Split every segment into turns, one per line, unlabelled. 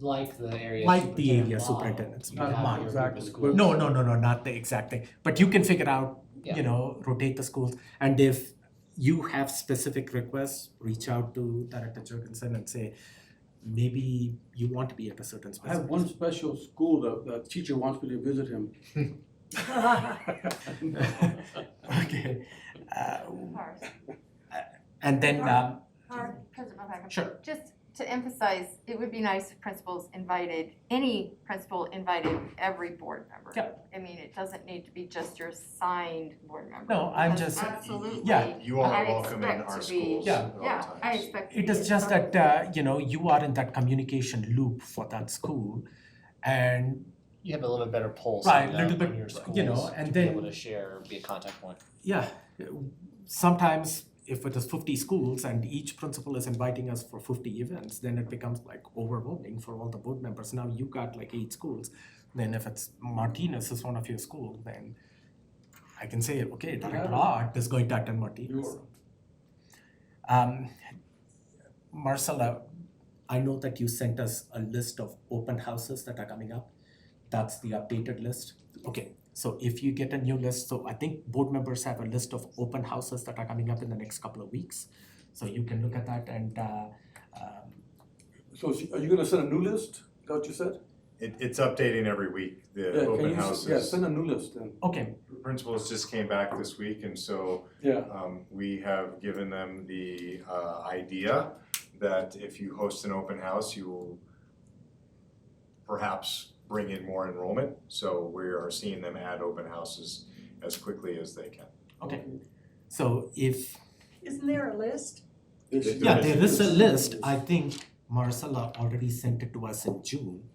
like the area.
Like the area
model,
superintendent's
you
model.
have
Model,
your
exactly.
group of schools.
No, no, no, no, not the exact thing, but you can figure out,
Yeah.
you know, rotate the schools. And if you have specific requests, reach out to Director Jurgensen and say, maybe you want to be at a certain
I have
specific.
one special school that the teacher wants me to visit him.
Okay, uh,
Cars,
and then, um,
car, Principal Packer.
sure,
Just to emphasize, it would be nice if principals invited, any principal invited every board member.
Yep.
I mean, it doesn't need to be just your assigned board member.
no, I'm
because
just.
Absolutely.
yeah.
You are
I
welcome in
expect
our
to be-
schools
Yeah.
at all
Yeah, I
times.
expect.
It is just that, uh, you know, you are in that communication loop for that school. And,
You have a little bit better pulse
Right,
on,
little
the,
bit,
on your schools
you know, and
to
then-
be able to share, be a contact point.
yeah, sometimes if it is fifty schools and each principal is inviting us for fifty events, then it becomes like overwhelming for all the board members. Now you got like eight schools. Then if it's Martinez is one of your school, then I can say, okay, Director
Yeah.
Art is going to attend Martinez.
You're-
Um, Marcella, I know that you sent us a list of open houses that are coming up. That's the updated list. Okay, so if you get a new list, so I think board members have a list of open houses that are coming up in the next couple of weeks. So you can look at that and uh, um,
So is- are you gonna send a new list? Is that what you said?
It, it's updating every week,
Yeah,
the
can
open
you s- Yeah,
houses.
send a new list then.
okay,
Principals just came back this week and so,
Yeah,
um, we have given them the, uh, idea that if you host an open house, you will perhaps bring in more enrollment, so we are seeing them add open houses as quickly as they can.
okay. So if
Isn't there a list?
Yes, you
Yeah,
guys-
there is a list, I think Marcella already sent it to us in June.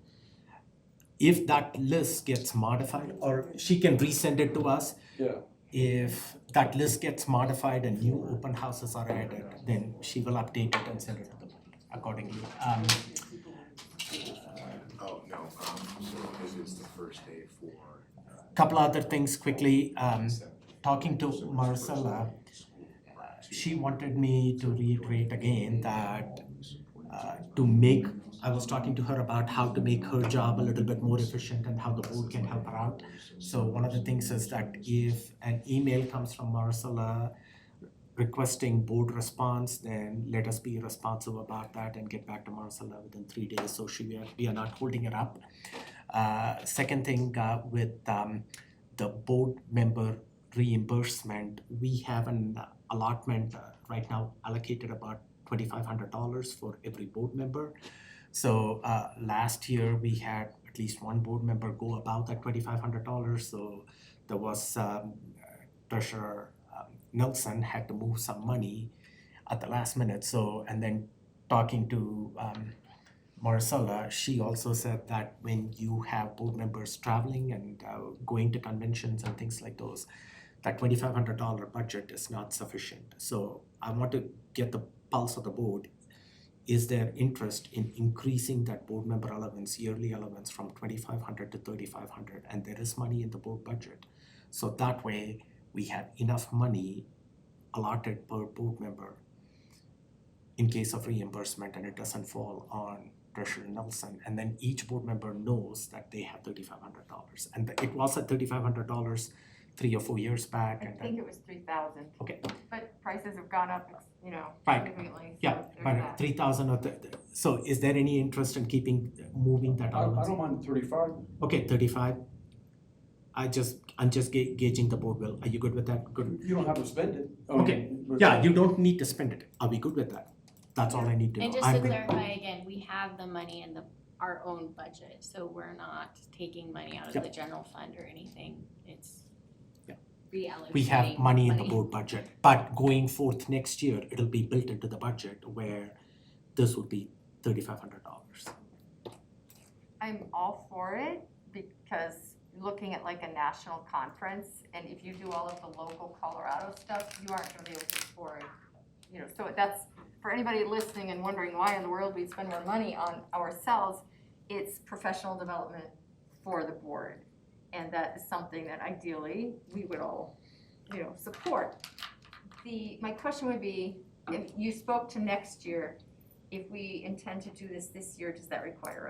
If that list gets modified, or she can resend it to us,
Yeah,
if that list gets modified and new open houses are added, then she will update it and send it to the board accordingly. Um,
Oh, no, um, so this is the first day for. uh,
couple other things quickly, um, talking to
So it's first
Marcella,
day of school.
she wanted me to reiterate again that uh, to make, I was talking to her about how to make her job a little bit more efficient and how the board can help her out. So one of the things is that if an email comes from Marcella requesting board response, then let us be responsive about that and get back to Marcella within three days, so she, we are- we are not holding it up. Uh, second thing, uh, with, um, the board member reimbursement, we have an allotment uh, right now allocated about twenty-five hundred dollars for every board member. So uh last year, we had at least one board member go above that twenty-five hundred dollars, so there was um treasurer um, Nelson had to move some money at the last minute, so and then talking to um Marcella, she also said that when you have board members traveling and uh, going to conventions and things like those, that twenty-five hundred dollar budget is not sufficient. So I want to get the pulse of the board. Is there interest in increasing that board member allowance, yearly allowance from twenty-five hundred to thirty-five hundred? And there is money in the board budget. So that way, we have enough money allotted per board member in case of reimbursement and it doesn't fall on Treasurer Nelson. And then each board member knows that they have thirty-five hundred dollars. And it was at thirty-five hundred dollars three or four years back
I
and
think
then,
it was three thousand,
okay,
but prices have gone up, you know,
Right.
significantly, so
yeah,
there's
but
that.
three thousand or the, the- so is there any interest in keeping, moving that
I, I
allowance?
don't mind thirty-five.
Okay, thirty-five. I just, I'm just ga- gauging the board will. Are you good with that? Good.
You don't have to spend it. I mean,
Okay.
but-
Yeah, you don't need to spend it. Are we good with that? That's all I need to know.
And just
I'm
to
good-
clarify again, we have the money in the, our own budget, so we're not taking money out of
Yep.
the general fund or anything, it's
Yep.
reallocating
we have money in the board budget, but going forth next year, it'll be built into the budget where this would be thirty-five hundred dollars.
I'm all for it because looking at like a national conference and if you do all of the local Colorado stuff, you aren't gonna be able to afford, you know, so that's, for anybody listening and wondering why in the world we spend more money on ourselves, it's professional development for the board. And that is something that ideally we would all, you know, support. The, my question would be, if you spoke to next year, if we intend to do this this year, does that require a